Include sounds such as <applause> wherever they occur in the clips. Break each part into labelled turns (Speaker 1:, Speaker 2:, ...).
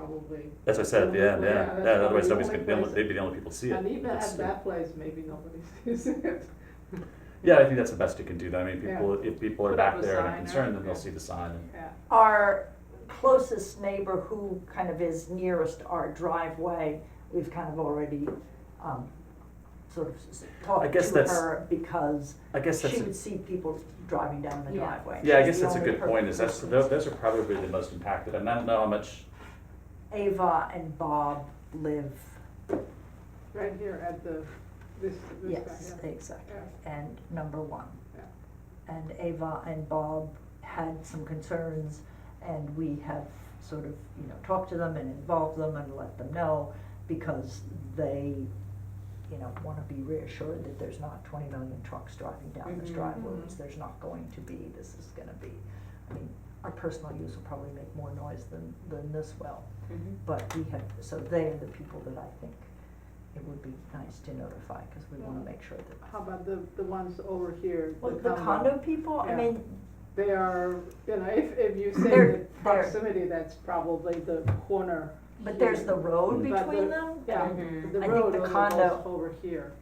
Speaker 1: probably.
Speaker 2: That's what I said, yeah,
Speaker 1: Probably,
Speaker 2: yeah,
Speaker 1: that's
Speaker 2: yeah, otherwise
Speaker 1: probably
Speaker 2: nobody's
Speaker 1: the
Speaker 2: gonna,
Speaker 1: only
Speaker 2: be able-
Speaker 1: place.
Speaker 2: they'd be the only people to see it.
Speaker 1: And even
Speaker 2: It's,
Speaker 1: at
Speaker 2: uh,
Speaker 1: that place, maybe nobody <laughs> sees it.
Speaker 2: Yeah, I think that's the best you can do, I mean,
Speaker 1: Yeah.
Speaker 2: people, if people are
Speaker 1: Put up
Speaker 2: back
Speaker 1: a
Speaker 2: there
Speaker 1: sign
Speaker 2: and are
Speaker 1: or-
Speaker 2: concerned, then they'll
Speaker 1: yeah.
Speaker 2: see the sign and
Speaker 1: Yeah,
Speaker 3: Our closest neighbor who kind of is nearest our driveway, we've kind of already, um, sort of s- talked
Speaker 2: guess
Speaker 3: to
Speaker 2: that's-
Speaker 3: her because
Speaker 2: I guess that's,
Speaker 3: she
Speaker 2: a-
Speaker 3: would see people driving down the
Speaker 1: Yeah.
Speaker 3: driveway.
Speaker 2: yeah, I
Speaker 3: She's
Speaker 2: guess
Speaker 3: the
Speaker 2: that's a
Speaker 3: only
Speaker 2: good point, is that's,
Speaker 3: person.
Speaker 2: tho- those are probably the most impacted, and I don't know how much,
Speaker 3: Ava and Bob live,
Speaker 1: right here at the, this, this guy,
Speaker 3: yes,
Speaker 1: yeah.
Speaker 3: exactly, and number one.
Speaker 1: Yeah.
Speaker 3: And Ava and Bob had some concerns, and we have sort of, you know, talked to them and involved them and let them know, because they, you know, wanna be reassured that there's not twenty million trucks driving down this
Speaker 1: Mhm.
Speaker 3: driveways,
Speaker 1: Mhm.
Speaker 3: there's not going to be, this is gonna be, I mean, our personal use will probably make more noise than, than this will.
Speaker 1: Mhm.
Speaker 4: Mm-hmm.
Speaker 3: But we have, so they are the people that I think it would be nice to notify, cause we wanna make sure
Speaker 1: How
Speaker 3: that.
Speaker 1: about the, the ones over here?
Speaker 3: Well, the condo people, I
Speaker 1: Yeah.
Speaker 3: mean,
Speaker 1: They are, you know, if, if you say
Speaker 3: They're-
Speaker 1: the proximity, that's probably the corner.
Speaker 3: but there's the road
Speaker 1: But
Speaker 3: between
Speaker 1: the-
Speaker 3: them.
Speaker 1: Yeah,
Speaker 4: Mhm.
Speaker 1: the
Speaker 3: I think
Speaker 1: road
Speaker 3: the
Speaker 1: on the
Speaker 3: condo-
Speaker 1: left over here.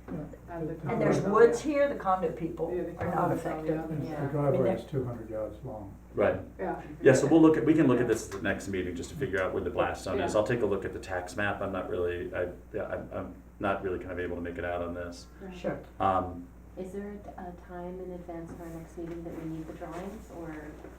Speaker 1: And the
Speaker 3: And there's
Speaker 1: condo,
Speaker 3: woods
Speaker 1: yeah.
Speaker 3: here, the condo people
Speaker 1: Yeah, the
Speaker 3: are not
Speaker 1: condo,
Speaker 3: affected.
Speaker 1: yeah.
Speaker 5: It's-
Speaker 4: Yeah.
Speaker 5: The driveway is two hundred yards long.
Speaker 2: right,
Speaker 1: Yeah.
Speaker 2: yeah, so we'll look at, we can look at this at the next meeting, just to figure out where the blast zone is,
Speaker 1: Yeah.
Speaker 2: I'll take a look at the tax map, I'm not really, I, yeah, I'm, I'm not really kind of able to make it out on this.
Speaker 1: Yeah.
Speaker 3: Sure.
Speaker 2: Um,
Speaker 4: Is there a t- a time in advance for our next meeting that we need the drawings or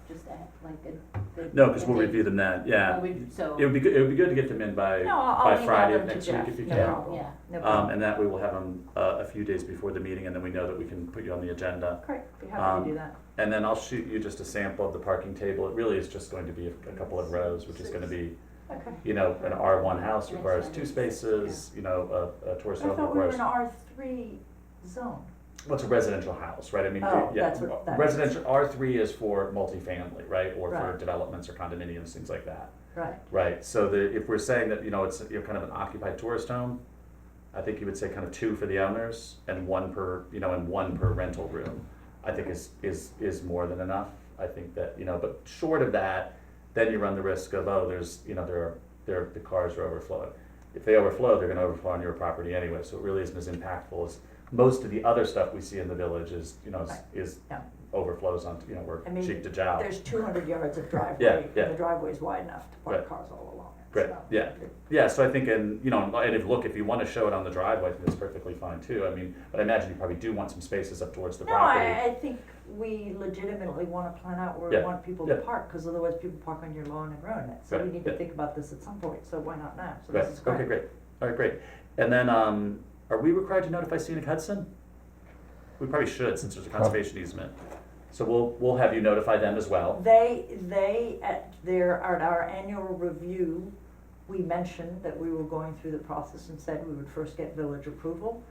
Speaker 4: just at like a? the-
Speaker 2: no, because
Speaker 4: a
Speaker 2: we'll
Speaker 4: date?
Speaker 2: review them then, yeah,
Speaker 4: Oh, we- So.
Speaker 2: it would be, good. it would be good to get them in by,
Speaker 3: No, I'll- I'll
Speaker 2: by
Speaker 3: email
Speaker 2: Friday of
Speaker 3: them to
Speaker 2: next week
Speaker 3: Jeff,
Speaker 2: if you can.
Speaker 3: no problem.
Speaker 4: Yeah,
Speaker 3: No
Speaker 2: Um,
Speaker 3: problem.
Speaker 2: and that we will have them, uh, a few days before the meeting, and then we know that we can put you on the agenda.
Speaker 3: Great, be
Speaker 2: um,
Speaker 3: happy to do that.
Speaker 2: And then I'll shoot you just a sample of the parking table, it really is just going to be a, a couple of rows, which is gonna be,
Speaker 3: Okay.
Speaker 2: you know, an R one house requires two spaces, you know, a, a
Speaker 3: I
Speaker 2: tourist home
Speaker 3: thought we were
Speaker 2: requires,
Speaker 3: in R three zone.
Speaker 2: what's a residential house, right, I mean,
Speaker 3: Oh,
Speaker 2: yeah,
Speaker 3: that's what that
Speaker 2: residential, R three is for multifamily, right, or for
Speaker 3: Right.
Speaker 2: developments or condominiums, things like that.
Speaker 3: Right.
Speaker 2: Right, so the, if we're saying that, you know, it's, you know, kind of an occupied tourist home, I think you would say kind of two for the owners and one per, you know, and one per rental room. I think is, is, is more than enough, I think that, you know, but short of that, then you run the risk of, oh, there's, you know, there are, there, the cars are overflowing. If they overflow, they're gonna overflow on your property anyway, so it really isn't as impactful as, most of the other stuff we see in the village is, you know, is-
Speaker 3: Right.
Speaker 2: is
Speaker 3: Yeah.
Speaker 2: overflows onto, you know, we're
Speaker 3: I mean,
Speaker 2: cheek to jowl.
Speaker 3: There's two hundred yards
Speaker 2: <laughs>
Speaker 3: of
Speaker 2: Yeah,
Speaker 3: driveway,
Speaker 2: yeah.
Speaker 3: and the driveway's wide enough to
Speaker 2: Right.
Speaker 3: park cars all along it.
Speaker 2: Great,
Speaker 3: so-
Speaker 2: yeah. Yeah, so I think, and, you know, and if, look, if you wanna show it on the driveway, then that's perfectly fine too, I mean, but I imagine you probably do want some spaces up towards the
Speaker 3: No, I,
Speaker 2: property.
Speaker 3: I think we legitimately wanna plan out where we
Speaker 2: Yeah,
Speaker 3: want people to
Speaker 2: yeah.
Speaker 3: park, cause otherwise people park on your lawn and ruin it. So
Speaker 2: Right,
Speaker 3: we need to
Speaker 2: yeah.
Speaker 3: think about this at some point, so why not now? So
Speaker 2: Right,
Speaker 3: this is
Speaker 2: okay,
Speaker 3: great.
Speaker 2: great, alright, great, and then, um, are we required to notify scenic Hudson? We probably should, since there's a conservation easement, so we'll, we'll have you notify them as well,
Speaker 3: They, they, at their, at our annual review, we mentioned that we were going through the process and said we would first get village approval,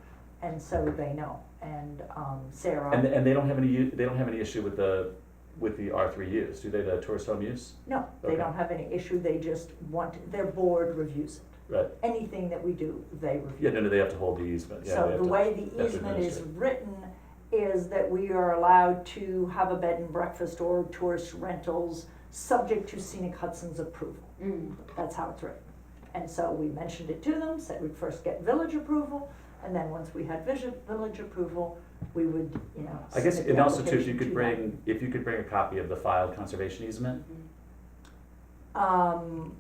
Speaker 3: and so they know. And, um,
Speaker 2: and,
Speaker 3: Sarah,
Speaker 2: and they don't have any, u- they don't have any issue with the, with the R three use, do they, the tourist home use?
Speaker 3: no, they
Speaker 2: Okay.
Speaker 3: don't have any issue, they just want, their board reviews it.
Speaker 2: Right,
Speaker 3: Anything that we do, they review.
Speaker 2: yeah, no, no, they have to hold the easement, yeah, they
Speaker 3: So
Speaker 2: have
Speaker 3: the
Speaker 2: to-
Speaker 3: way the
Speaker 2: that's
Speaker 3: easement is
Speaker 2: administered.
Speaker 3: written is that we are allowed to have a bed and breakfast or tourist rentals, subject to scenic Hudson's approval.
Speaker 4: Mm.
Speaker 3: That's how it's written. And so we mentioned it to them, said we'd first get village approval, and then once we had vision, village approval, we would, you know.
Speaker 2: I guess,
Speaker 3: submit
Speaker 2: and
Speaker 3: the
Speaker 2: also too, if you
Speaker 3: application
Speaker 2: could
Speaker 3: to
Speaker 2: bring, if you could bring a copy of the filed conservation easement,
Speaker 4: Mm-hmm.
Speaker 3: them. Um,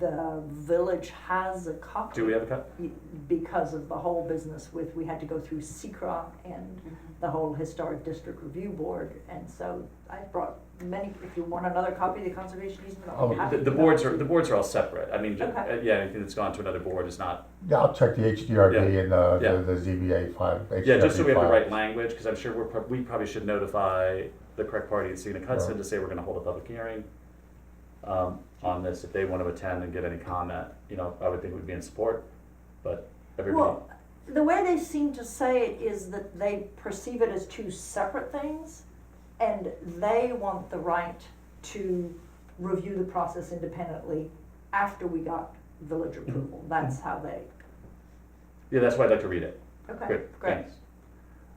Speaker 3: the village has a copy.
Speaker 2: do we have a copy?
Speaker 3: Because of the whole business with, we had to go through Secra and the whole historic district review board, and so I brought many, if you want another copy of the conservation easement, I'll
Speaker 6: Oh,
Speaker 3: be happy
Speaker 2: The, the
Speaker 3: to.
Speaker 2: boards are, the boards are all separate, I mean, ju-
Speaker 3: Okay.
Speaker 2: uh, yeah, anything that's gone to another board is not,
Speaker 6: Yeah, I'll check the HDRB
Speaker 2: Yeah.
Speaker 6: and uh,
Speaker 2: Yeah.
Speaker 6: the, the ZBA file.
Speaker 2: yeah, just so
Speaker 6: HDRB
Speaker 2: we have the
Speaker 6: file.
Speaker 2: right language, because I'm sure we're, prob- we probably should notify the correct party at scenic Hudson
Speaker 6: Right.
Speaker 2: to say we're gonna hold a public hearing um, on this, if they wanna attend and get any comment, you know, I would think we'd be in support, but everybody,
Speaker 3: Well, the way they seem to say it is that they perceive it as two separate things, and they want the right to review the process independently after we got village
Speaker 2: Mm-hmm.
Speaker 3: approval, that's how they,
Speaker 2: yeah, that's why I'd like to read it,
Speaker 3: okay,
Speaker 2: good,
Speaker 3: great.
Speaker 2: thanks.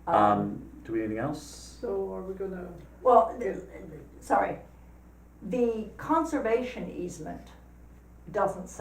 Speaker 2: Um, do we, anything else?
Speaker 1: So are we gonna,
Speaker 3: Well, th- sorry, the conservation easement doesn't